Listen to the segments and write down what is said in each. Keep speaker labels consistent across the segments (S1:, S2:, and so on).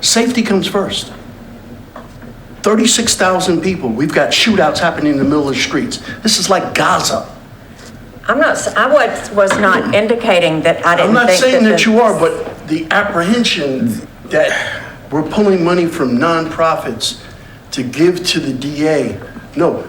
S1: Safety comes first. 36,000 people, we've got shootouts happening in the middle of the streets. This is like Gaza.
S2: I'm not, s- I was, was not indicating that I
S1: I'm
S2: didn't think
S1: not
S2: that
S1: saying that
S2: the-
S1: you are, but the apprehension that we're pulling money from nonprofits to give to the DA. No,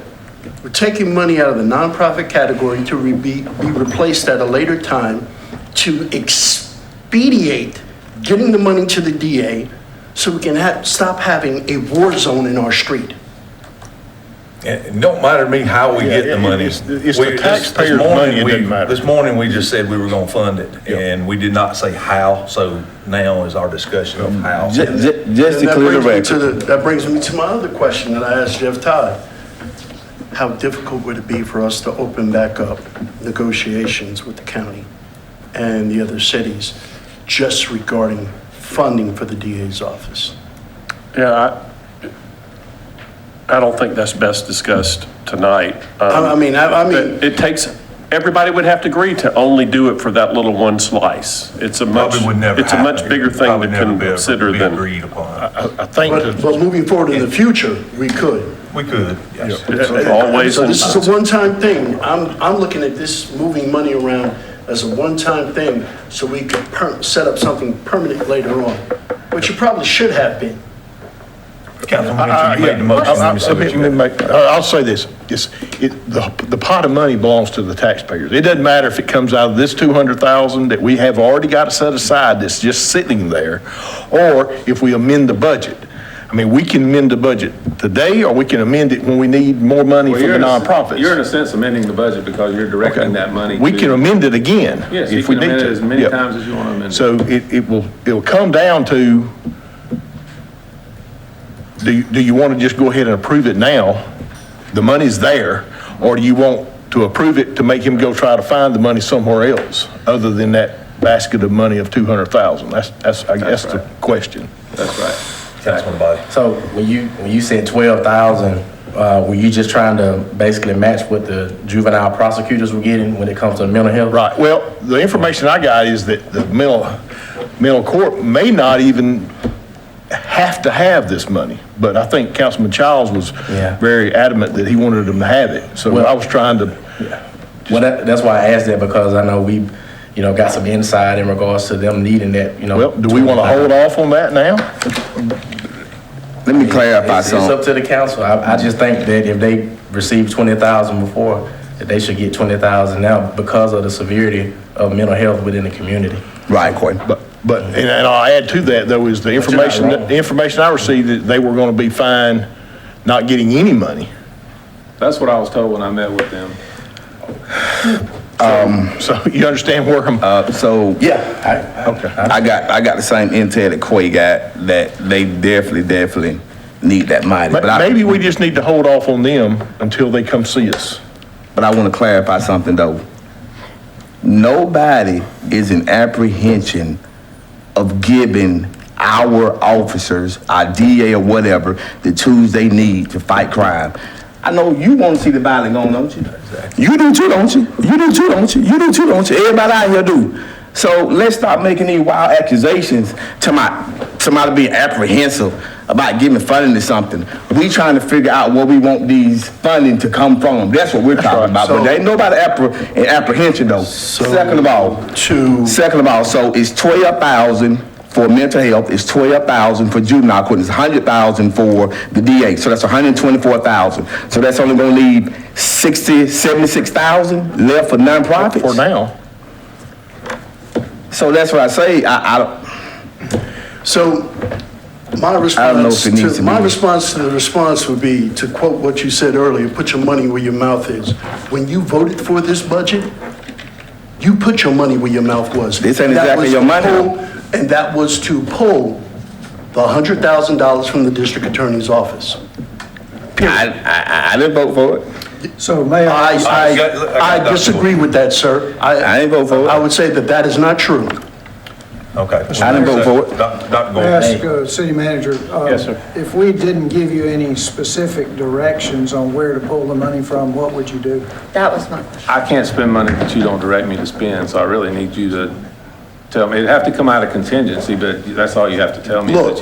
S1: we're taking money out of the nonprofit category to re- be, be replaced at a later time to expedite getting the money to the DA so we can ha, stop having a war zone in our street.
S3: It don't matter to me how we get
S4: Yeah,
S3: the
S4: it-
S3: money.
S4: it's- it's
S3: We-
S4: the
S3: this- this
S4: taxpayer's
S3: morning
S4: money, it
S3: we-
S4: doesn't matter.
S3: This morning, we just said we were gonna fund it, and we did not say how, so now is our discussion
S4: Mm.
S3: of how.
S5: Ju- ju- Just to
S1: And that
S5: clear the
S1: brings me to
S5: record,
S1: the- That brings me to my other question that I asked Jeff Todd. How difficult would it be for us to open back up negotiations with the county and the other cities just regarding funding for the DA's office?
S6: Yeah, I, I don't think that's best discussed tonight. Um,
S1: I I mean, I I mean,
S6: But it takes, everybody would have to agree to only do it for that little one slice. It's a much,
S3: Probably would never
S6: it's a much
S3: happen.
S6: bigger thing to
S3: Probably never be-
S6: consider
S3: be
S6: than,
S3: Agreed upon.
S4: I, I think
S1: but
S4: that,
S1: but moving forward in the future, we could.
S3: We could, yes.
S6: it's always,
S1: So this
S6: in-
S1: is a one-time thing. I'm, I'm looking at this moving money around as a one-time thing so we can per, set up something permanent later on, which it probably should have been.
S3: Councilman
S4: I, I,
S3: Mitchell, you made the
S4: yeah,
S3: motion. Let
S4: I- I-
S3: me see what
S4: let
S3: you
S4: me
S3: got.
S4: make- I- I'll say this, it's, it, the, the pot of money belongs to the taxpayers. It doesn't matter if it comes out of this two hundred thousand that we have already got set aside that's just sitting there, or if we amend the budget. I mean, we can amend the budget today, or we can amend it when we need more money
S7: Well,
S4: from the
S7: you're in a-
S4: nonprofits.
S7: You're in a sense amending the budget because you're directing that money.
S4: We
S7: to-
S4: can amend it again.
S7: Yes, you
S4: if we
S7: can amend
S4: need
S7: it
S4: to.
S7: as many
S4: Yeah.
S7: times as you want to amend it.
S4: So it, it will, it will come down to, do, you- do you want to just go ahead and approve it now? The money's there, or do you want to approve it to make him go try to find the money somewhere else other than that basket of money of 200,000? That's, that's, I guess, the question.
S7: That's right.
S3: Councilman Body.
S8: So when you, when you said twelve thousand, uh, were you just trying to basically match what the juvenile prosecutors were getting when it comes to mental health?
S4: Right, well, the information I got is that the mental, mental court may not even have to have this money. But I think Councilman Childs was
S8: Yeah.
S4: very adamant that he wanted them to have it. So
S8: Well-
S4: I was trying to,
S8: Well, that, that's why I asked that because I know we, you know, got some insight in regards to them needing that, you know.
S4: well, do we want to hold off on that now?
S5: let me clarify
S8: It's, it's up
S5: something.
S8: to the council. I, I just think that if they received twenty thousand before, that they should get twenty thousand now because of the severity of mental health within the community.
S5: Right, Courtney.
S4: But, but, and and I'll add to that though, is the
S8: you're not
S4: information,
S8: wrong.
S4: the information I received that they were going to be fine not getting any money.
S7: That's what I was told when I met with them.
S4: So you understand where I'm,
S5: Uh, so
S8: Yeah. I,
S4: okay.
S5: I got, I got the same intel that Quay got, that they definitely, definitely need that money. But
S4: Ma-
S5: I-
S4: Maybe we just need to hold off on them until they come see us.
S5: But I want to clarify something though. Nobody is in apprehension of giving our officers, our DA or whatever, the tools they need to fight crime. I know you want to see the violence gone, don't you? You do too, don't you? You do too, don't you? You do too, don't you? Everybody out here do. So let's stop making these wild accusations to my, somebody being apprehensive about giving funding to something. We trying to figure out where we want these funding to come from. That's what we're talking about. But there ain't nobody appreh- in apprehension though. Second of all,
S1: To
S5: Second of all, so it's twelve thousand for mental health, it's twelve thousand for juvenile court, it's hundred thousand for the DA, so that's hundred and twenty-four thousand. So that's only gonna leave sixty, seventy-six thousand left for nonprofits?
S4: For now.
S5: So that's what I say, I, I, don't-
S1: So my
S5: know if
S1: response,
S5: it needs
S1: to
S5: to
S1: my
S5: be-
S1: response to the response would be, to quote what you said earlier, put your money where your mouth is. When you voted for this budget, you put your money where your mouth was.
S5: This ain't
S1: That
S5: exactly
S1: was
S5: your
S1: to
S5: money.
S1: pull- And that was to pull the $100,000 from the district attorney's office.
S5: I, I, I didn't vote for it.
S9: So may I,
S1: I,
S3: I got- I got
S1: I, I
S3: Dr.
S1: disagree with that, sir.
S5: I ain't vote for it.
S1: I would say that that is not true.
S3: Okay.
S5: I didn't vote for it.
S3: Doc- Doc
S9: may I
S3: Gordon.
S9: ask, uh, city manager? Yes, sir. If we didn't give you any specific directions on where to pull the money from, what would you do?
S2: That was my question.
S7: I can't spend money that you don't direct me to spend, so I really need you to tell me. It'd have to come out of contingency, but that's all you have to tell me. is that
S1: Look,